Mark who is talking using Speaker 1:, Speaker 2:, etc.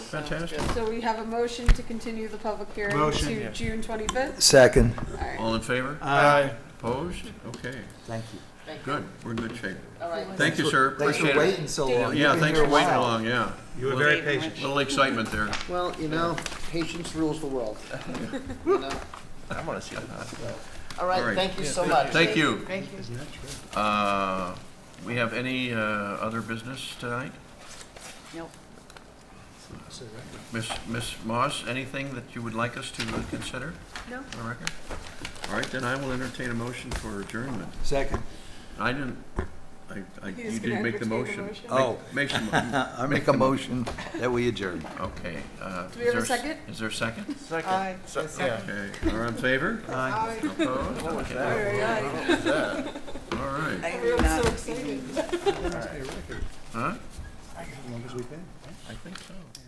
Speaker 1: Fantastic.
Speaker 2: So we have a motion to continue the public hearing
Speaker 3: Motion,
Speaker 2: to
Speaker 3: yes.
Speaker 2: June twenty-fifth?
Speaker 4: Second.
Speaker 1: All in favor?
Speaker 3: Aye.
Speaker 1: Opposed? Okay,
Speaker 4: Thank you.
Speaker 1: good, we're in good shape.
Speaker 2: All right.
Speaker 1: Thank you, sir,
Speaker 4: Thanks
Speaker 1: appreciate
Speaker 4: for
Speaker 1: it.
Speaker 4: waiting so
Speaker 2: Dave.
Speaker 4: long.
Speaker 1: Yeah,
Speaker 4: You've been
Speaker 1: thanks
Speaker 4: here
Speaker 1: for
Speaker 4: a
Speaker 1: waiting
Speaker 4: while.
Speaker 1: along, yeah.
Speaker 3: You were very patient.
Speaker 1: Little excitement there.
Speaker 5: Well, you know, patience rules the world. You know?
Speaker 1: I want to see that.
Speaker 5: All
Speaker 1: All
Speaker 5: right,
Speaker 1: right.
Speaker 5: thank you so much.
Speaker 1: Thank you.
Speaker 5: Thank you.
Speaker 1: Uh, We have any uh, other business tonight?
Speaker 5: Nope.
Speaker 1: Miss Miss Moss, anything that you would like us to uh, consider?
Speaker 2: No.
Speaker 1: on the record? All right, then I will entertain a motion for adjournment.
Speaker 4: Second.
Speaker 1: I didn't, I, I,
Speaker 2: He
Speaker 1: you
Speaker 2: was
Speaker 1: didn't
Speaker 2: gonna
Speaker 1: make the
Speaker 2: entertain a
Speaker 1: motion.
Speaker 2: motion.
Speaker 1: Make-
Speaker 4: Oh.
Speaker 1: Make some.
Speaker 4: I make a motion that we adjourn.
Speaker 1: Okay. uh,
Speaker 2: Do we have a
Speaker 1: is there s-
Speaker 2: second?
Speaker 1: Is there a second?
Speaker 5: Aye.
Speaker 1: Okay, are in favor?
Speaker 2: Aye.
Speaker 1: Opposed? Okay.
Speaker 2: Aye, aye.
Speaker 1: All right,
Speaker 2: We're all so excited.
Speaker 1: huh? I think so.